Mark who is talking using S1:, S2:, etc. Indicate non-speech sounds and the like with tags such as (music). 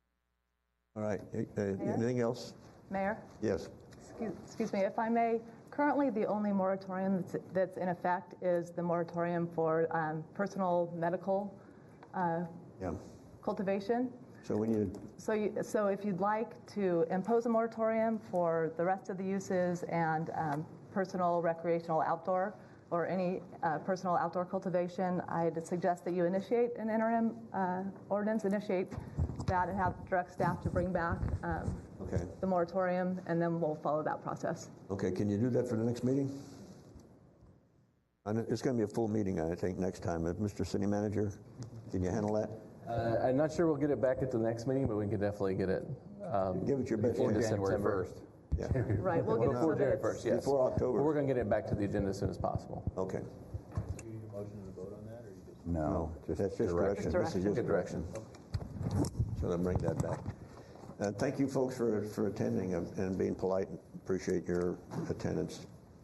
S1: All right, uh, anything else?
S2: Mayor,
S1: Yes.
S2: excuse- excuse me, if I may, currently the only moratorium that's- that's in effect is the moratorium for um, personal medical
S1: Yeah.
S2: cultivation.
S1: So we need,
S2: So, you- so if you'd like to impose a moratorium for the rest of the uses and um, personal recreational outdoor or any uh, personal outdoor cultivation, I'd suggest that you initiate an interim uh, ordinance, initiate that and have direct staff to bring back um,
S1: okay,
S2: the moratorium, and then we'll follow that process.
S1: okay, can you do that for the next meeting? And it- it's going to be a full meeting, I think, next time. Uh, Mr. City Manager, can you handle that?
S3: Uh, I'm not sure we'll get it back at the next meeting, but we can definitely get it. um,
S1: Give it your best
S3: into
S1: shot.
S4: January
S3: September.
S4: 1st. (laughs)
S1: Yeah,
S2: Right, we'll get it so
S3: Before
S2: that
S3: January
S2: it's,
S3: 1st, yes.
S1: Before October.
S3: But We're going to get it back to the agenda as soon as possible.
S1: okay.
S4: No, just
S1: That's just direction.
S4: direction.
S1: This is just
S3: Good
S1: direction. So then bring that back. Uh, thank you folks for, for attending and and being polite. Appreciate your attendance.